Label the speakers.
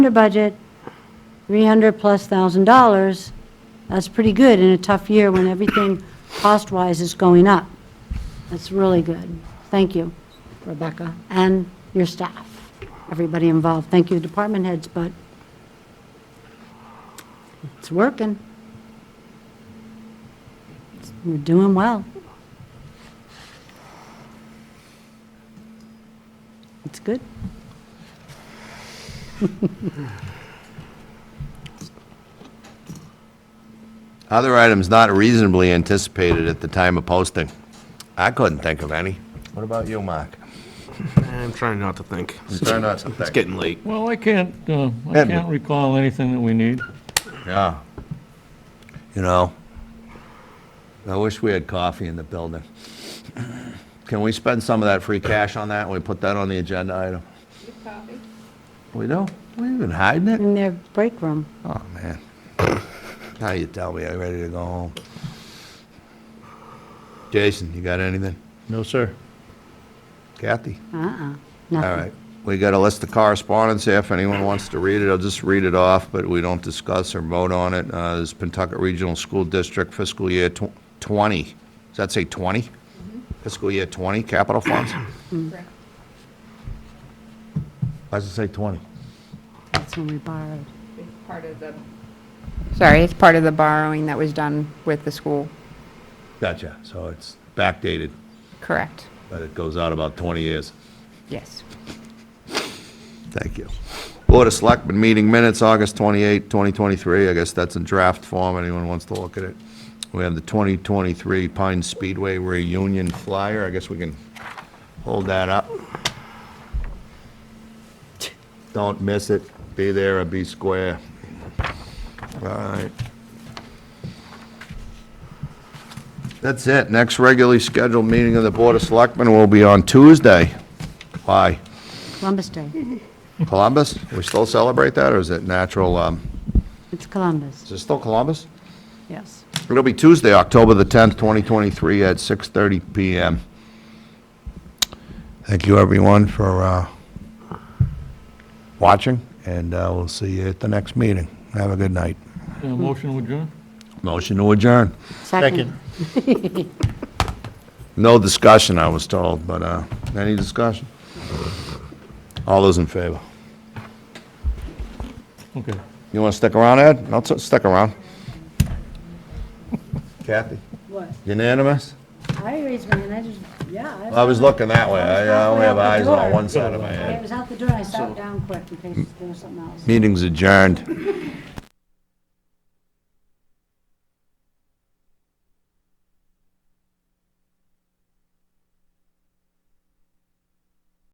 Speaker 1: under budget, 300-plus thousand dollars, that's pretty good in a tough year when everything cost-wise is going up. That's really good. Thank you, Rebecca, and your staff, everybody involved. Thank you, department heads, but it's working. We're doing well. It's good.
Speaker 2: Other items not reasonably anticipated at the time of posting. I couldn't think of any. What about you, Mark?
Speaker 3: I'm trying not to think.
Speaker 2: Try not to think.
Speaker 3: It's getting late.
Speaker 4: Well, I can't, uh, I
Speaker 2: Edward.
Speaker 4: can't recall anything that we need.
Speaker 2: Yeah. You know, I wish we had coffee in the building. Can we spend some of that free cash on that? We put that on the agenda item? We do? We even hiding it?
Speaker 1: In their break room.
Speaker 2: Oh, man. Now you tell me I'm ready to go home. Jason, you got anything?
Speaker 4: No, sir.
Speaker 2: Kathy?
Speaker 1: Uh-uh.
Speaker 2: All
Speaker 1: Nothing.
Speaker 2: right. We got a list of correspondence here. If anyone wants to read it, I'll just read it off, but we don't discuss or vote on it. Uh, This is Pentucket Regional School District fiscal year tw- 20. Does that say 20? Fiscal year 20, capital funds?
Speaker 5: Correct.
Speaker 2: Why does it say 20?
Speaker 1: That's when we borrowed.
Speaker 5: It's part of the. Sorry, it's part of the borrowing that was done with the school.
Speaker 2: Gotcha. So it's backdated,
Speaker 5: Correct.
Speaker 2: but it goes out about 20 years.
Speaker 5: Yes.
Speaker 2: Thank you. Board of Selectmen meeting minutes, August 28, 2023. I guess that's in draft form. Anyone wants to look at it? We have the 2023 Pine Speedway reunion flyer. I guess we can hold that up. Don't miss it. Be there or be square. All right. That's it. Next regularly scheduled meeting of the Board of Selectmen will be on Tuesday. Why?
Speaker 1: Columbus Day.
Speaker 2: Mm-hmm. Columbus? We still celebrate that, or is it natural, um,
Speaker 1: It's Columbus,
Speaker 2: is it still Columbus?
Speaker 1: yes.
Speaker 2: It'll be Tuesday, October the 10th, 2023, at 6:30 PM. Thank you, everyone, for uh, watching, and uh, we'll see you at the next meeting. Have a good night.
Speaker 4: Uh, Motion adjourned?
Speaker 2: Motion to adjourn.
Speaker 1: Second.
Speaker 2: No discussion, I was told, but uh, any discussion? All those in favor?
Speaker 4: Okay.
Speaker 2: You want to stick around, Ed? No, s- stick around. Kathy?
Speaker 1: What?
Speaker 2: Unanimous?
Speaker 1: I raised my hand, I just, yeah.
Speaker 2: I was looking that way. I only have eyes on one side of my
Speaker 1: I
Speaker 2: head.
Speaker 1: was out the door, I sat down quick in case there was something else.
Speaker 2: Meeting's adjourned.